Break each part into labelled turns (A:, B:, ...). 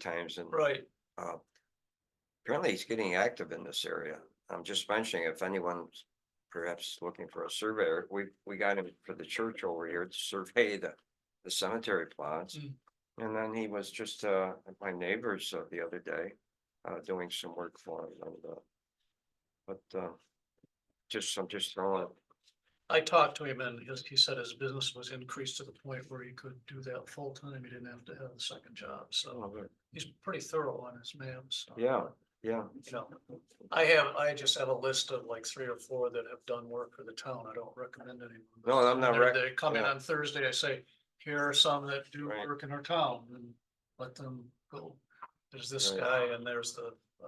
A: times and
B: Right,
A: uh, apparently he's getting active in this area. I'm just mentioning if anyone's perhaps looking for a surveyor, we, we got him for the church over here to survey the, the cemetery plots.
B: Mm.
A: And then he was just, uh, at my neighbor's uh, the other day, uh, doing some work for him and, uh, but, uh, just, I'm just throwing, it.
B: I talked to him and his, he said his business was increased to the point where he could do that full time. He didn't have to have a second job, so he's pretty thorough on his maps. so,
A: yeah, yeah,
B: You know, I have, I just have a list of like three or four that have done work for the town. I don't recommend anyone.
A: no, I'm not,
B: They're-
A: rec-
B: They come in
A: yeah.
B: on Thursday, I say, here are some that do
A: Right.
B: work in our town and let them go. There's this
A: Right.
B: guy and there's the uh.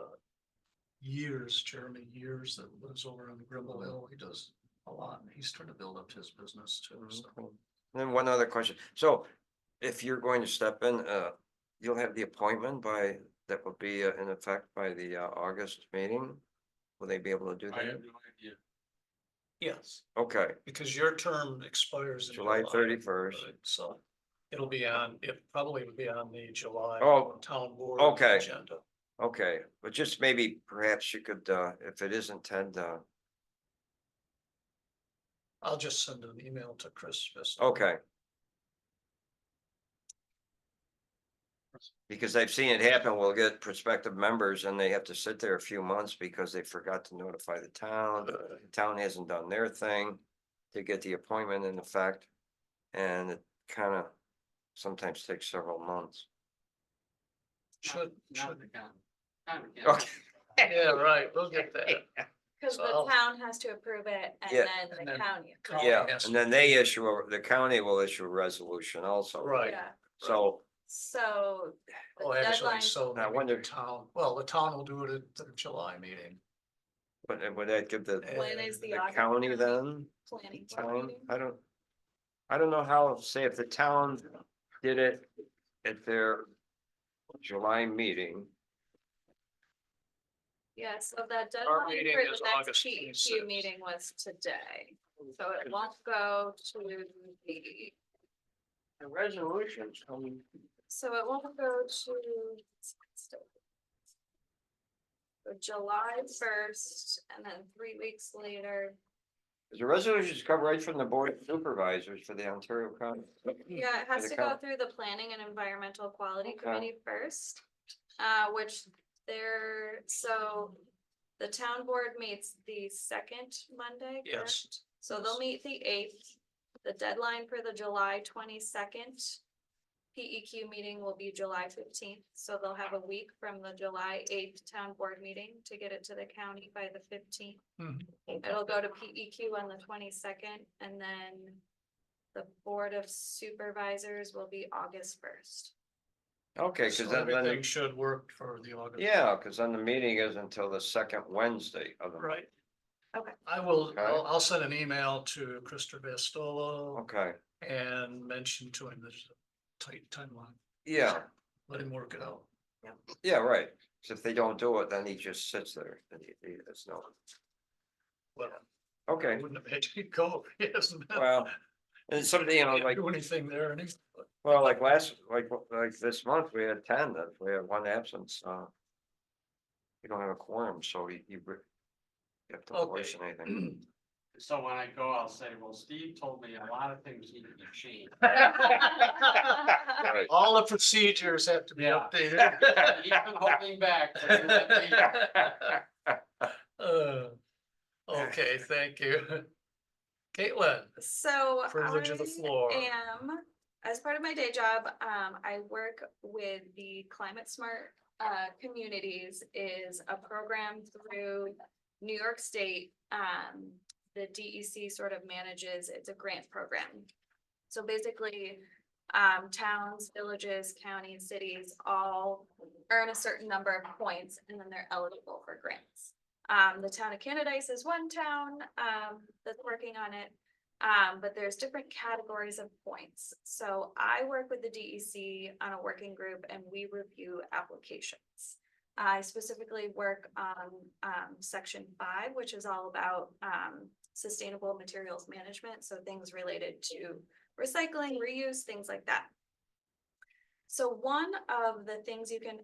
B: Years, Jeremy Years that lives over on Grimble
A: Mm-hmm.
B: Hill. He does a lot and he's trying to build up his business too. so.
A: Mm-hmm. Then one other question. So if you're going to step in, uh, you'll have the appointment by, that will be uh, in effect by the, uh, August meeting? Will they be able to do
C: I
A: that?
C: have no idea.
B: Yes,
A: Okay,
B: because your term expires. in
A: July thirty-first.
B: right, So it'll be on, it probably will be on the July.
A: Oh,
B: Town board.
A: okay.
B: Agenda.
A: Okay, but just maybe perhaps you could, uh, if it isn't Ted, uh,
B: I'll just send an email to Chris. just-
A: okay. Because I've seen it happen. We'll get prospective members and they have to sit there a few months because they forgot to notify the town. the town hasn't done their thing to get the appointment in effect. And it kind of sometimes takes several months.
B: Should,
C: Not
B: should,
C: the county. Not the county.
A: Okay,
B: yeah, right, we'll get that.
D: Cause
B: So-
D: the town has to approve it and
A: Yeah.
B: And
D: then the
B: then-
D: county.
B: County
A: Yeah,
B: has
A: and
B: to-
A: then they issue, a- the county will issue a resolution also.
B: Right.
D: Yeah,
A: So,
D: so. the
B: Oh, actually,
D: deadline-
B: so.
A: I
B: maybe
A: wonder-
B: the Town, well, the town will do it at the July meeting.
A: but would that give the,
D: When is
A: the
D: the August
A: county then?
D: Planning board
A: Time?
D: meeting?
A: I don't, I don't know how, say if the town did it at their July meeting.
D: Yeah, so that deadline
B: meeting
D: for
B: is
D: the next
B: August Oh,
D: P E
B: 26th.
D: Q meeting was today, so it won't go to the,
A: The resolutions coming.
D: so it won't go to. the July first and then three weeks later,
A: The resolutions come right from the board of supervisors for the Ontario County.
D: Yeah, it
A: the
D: has to go
A: count-
D: through the planning and environmental quality
A: Okay.
D: committee first, uh, which they're, so. The town board meets the second Monday,
B: Yes.
D: correct? So they'll meet the eighth, the deadline for the July twenty-second. PEQ meeting will be July fifteenth, so they'll have a week from the July eighth town board meeting to get it to the county by the fifteenth.
B: Mhm.
D: It'll go to PEQ on the twenty-second and then the Board of Supervisors will be August first.
A: Okay,
B: So
A: because then, then-
B: Everything should work for the August.
A: yeah, because then the meeting is until the second Wednesday of the.
B: Right.
D: Okay.
B: I will,
A: Okay.
B: I'll, I'll send an email to Christopher Bastolo
A: Okay,
B: and mention to him there's a tight timeline.
A: yeah,
B: Let him work it out.
A: yeah, right. So if they don't do it, then he just sits there and he, he, it's no,
B: Well, I
A: okay,
B: wouldn't have had to go. He hasn't been-
A: well. And somebody, you know,
B: didn't
A: like,
B: Do anything there and he's,
A: well, like last, like, like this month, we had ten, that we had one absence, uh. You don't have a quorum, so you, you. re- You have to
B: Okay.
A: voice anything.
C: So when I go, I'll say, well, Steve told me a lot of things need to be changed.
A: Right.
B: all the procedures have to be
C: Yeah.
B: updated.
C: He's been holding back. but he let me-
B: Uh, Okay, thank you. Caitlin,
D: So
B: privilege of the
D: I
B: floor.
D: am, as part of my day job, um, I work with the Climate Smart uh, Communities is a program through New York State. Um, the DEC sort of manages, it's a grant program. So basically, um, towns, villages, counties, cities all earn a certain number of points and then they're eligible for grants. Um, the town of Canadice is one town, um, that's working on it. Um, but there's different categories of points. So I work with the DEC on a working group and we review applications. I specifically work on, um, section five, which is all about, um, sustainable materials management. So things related to recycling, reuse, things like that. So one of the things you can